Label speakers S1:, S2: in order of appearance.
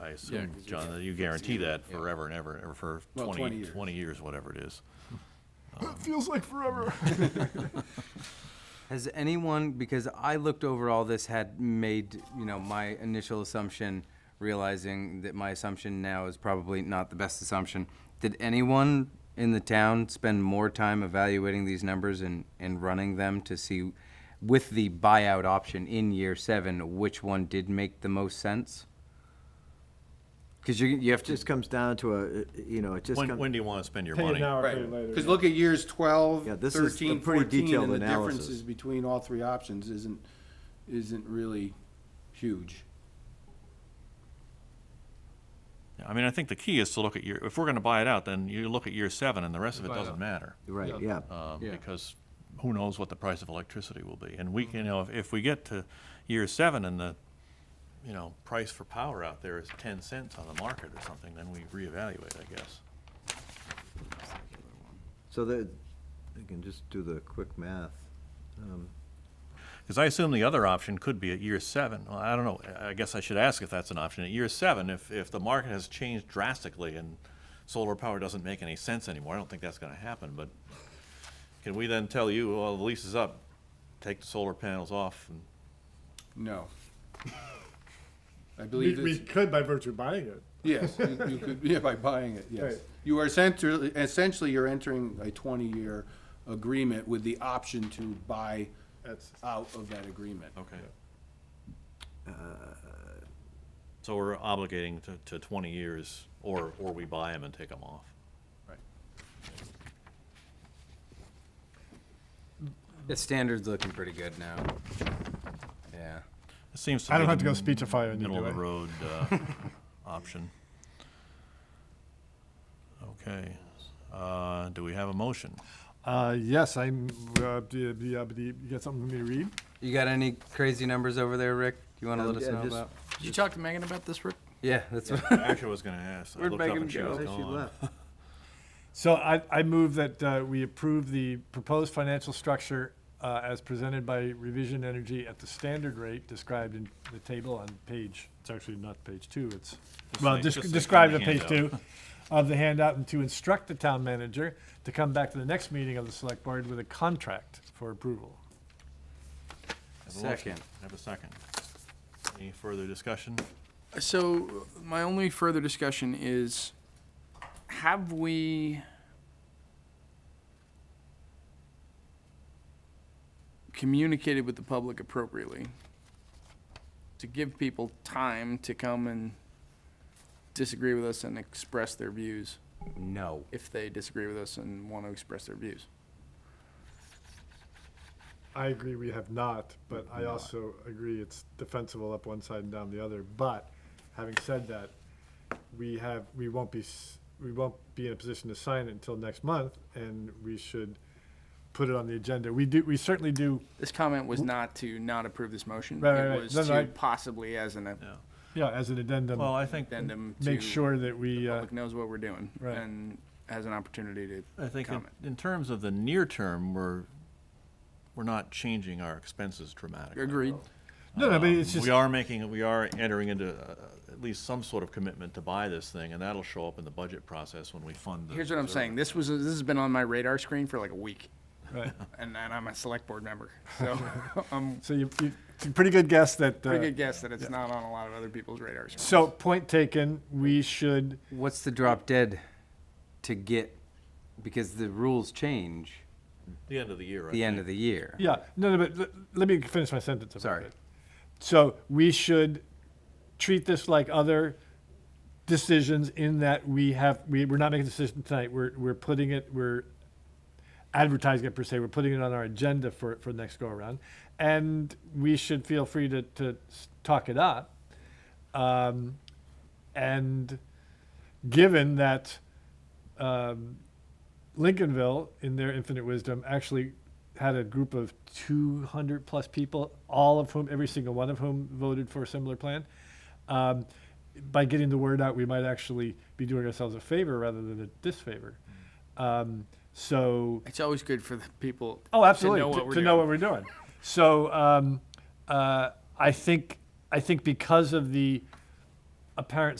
S1: I assume, John, that you guarantee that forever and ever, or for
S2: Well, 20
S1: twenty,
S2: years.
S1: twenty years, whatever it is.
S3: Feels like forever.
S4: Has anyone, because I looked over all this, had made, you know, my initial assumption, realizing that my assumption now is probably not the best assumption. Did anyone in the town spend more time evaluating these numbers and, and running them to see, with the buyout option in year seven, which one did make the most sense? Because you, you have
S5: It
S4: to,
S5: just comes down to a, uh, you know, it just
S1: When, when
S5: comes,
S1: do you want to spend your
S3: Pay it
S1: money?
S3: now or pay
S2: Right,
S3: it later.
S2: because
S3: yeah.
S2: look at years 12,
S5: Yeah,
S2: 13,
S5: this is a pretty
S2: 14,
S5: detailed
S2: and the
S5: analysis.
S2: differences between all three options isn't, isn't really huge.
S1: I mean, I think the key is to look at year, if we're gonna buy it out, then you look at year seven and the rest of it
S2: Buy it out.
S1: doesn't matter.
S5: right, yeah.
S1: um,
S2: Yeah.
S1: because who knows what the price of electricity will be? And we, can, you know, if, if we get to year seven and the, you know, price for power out there is ten cents on the market or something, then we reevaluate, I guess.
S5: So that, I can just do the quick math. Um,
S1: Because I assume the other option could be at year seven. Well, I don't know. I- I guess I should ask if that's an option. At year seven, if, if the market has changed drastically and solar power doesn't make any sense anymore, I don't think that's gonna happen, but can we then tell you, well, the lease is up, take the solar panels off and
S2: No. I
S3: We,
S2: believe
S3: we
S2: it's,
S3: could by virtue of buying it.
S2: yes, you you could, yeah, by buying it, yes.
S3: Right.
S2: You are essentially, essentially you're entering a 20-year agreement with the option to buy
S3: That's,
S2: out of that agreement.
S1: Okay. So we're obligating to, to twenty years, or, or we buy them and take them off.
S2: Right.
S4: the standard's looking pretty good now. Yeah.
S1: It seems to
S3: I
S1: be
S3: don't have to
S1: the
S3: go speechify on you,
S1: middle
S3: do
S1: of the
S3: I?
S1: road, uh, option. Okay, uh, do we have a motion?
S3: Uh, yes, I'm, uh, do, do, uh, do you got something for me to read?
S4: You got any crazy numbers over there, Rick? You want to
S5: Um,
S4: let us
S5: yeah,
S4: know
S5: just-
S4: about?
S6: Did you talk to Megan about this, Rick?
S4: Yeah, that's what.
S1: I Actually, was gonna ask. I
S4: Where'd
S1: looked up
S4: Megan
S1: and she
S4: go?
S1: was
S5: Where she
S1: gone.
S5: left?
S3: So I, I move that uh, we approve the proposed financial structure uh, as presented by Revision Energy at the standard rate described in the table on page, it's actually not page two, it's, well,
S1: like-
S3: desc-
S1: just like
S3: described
S1: on
S3: on
S1: the
S3: page two
S1: handout.
S3: of the handout, and to instruct the town manager to come back to the next meeting of the select board with a contract for approval.
S1: Have a motion.
S4: Second.
S1: Have a second. Any further discussion?
S6: So my only further discussion is, have we? communicated with the public appropriately to give people time to come and disagree with us and express their views
S4: No.
S6: if they disagree with us and want to express their views.
S3: I agree we have not, but I also agree it's defensible up one side and down the other. But having said that, we have, we won't be, s- we won't be in a position to sign it until next month and we should put it on the agenda. We do, we certainly do,
S6: This comment was not to not approve this motion.
S3: Right, right,
S6: It
S3: right.
S6: was
S3: No, no, I-
S6: to possibly as an
S1: Yeah.
S3: yeah, as an addendum,
S1: Well, I think,
S6: addendum to.
S3: make sure that we, uh,
S6: public knows what we're doing
S3: Right.
S6: and has an opportunity to
S1: I think in,
S6: comment.
S1: in terms of the near term, we're, we're not changing our expenses dramatically.
S6: Agreed.
S3: no, no, but it's
S1: Um,
S3: just,
S1: We are making, we are entering into uh, at least some sort of commitment to buy this thing, and that'll show up in the budget process when we fund the.
S6: Here's what I'm saying. This was, this has been on my radar screen for like a week
S3: right.
S6: and, and I'm a select board member. So I'm
S3: So you, you, it's a pretty good guess that,
S6: pretty
S3: uh,
S6: good guess that it's not on a lot of other people's radar screens.
S3: so point taken, we should,
S4: What's the drop dead to get, because the rules change
S1: The end of the year, I
S4: the end
S1: think.
S4: of the year?
S3: Yeah, no, no, but let, let me finish my sentence. if I
S4: Sorry.
S3: could. So we should treat this like other decisions in that we have, we, we're not making a decision tonight. We're, we're putting it, we're advertising it per se. We're putting it on our agenda for, for the next go around. And we should feel free to, to s- talk it up. Um, and given that um, Lincolnville, in their infinite wisdom, actually had a group of 200 plus people, all of whom, every single one of whom voted for a similar plan. Um, by getting the word out, we might actually be doing ourselves a favor rather than a disfavor. Um, so,
S6: It's always good for the people.
S3: Oh, absolutely.
S6: To know
S3: To,
S6: what we're
S3: to know what
S6: doing.
S3: we're doing. So um, uh, I think I think because of the apparent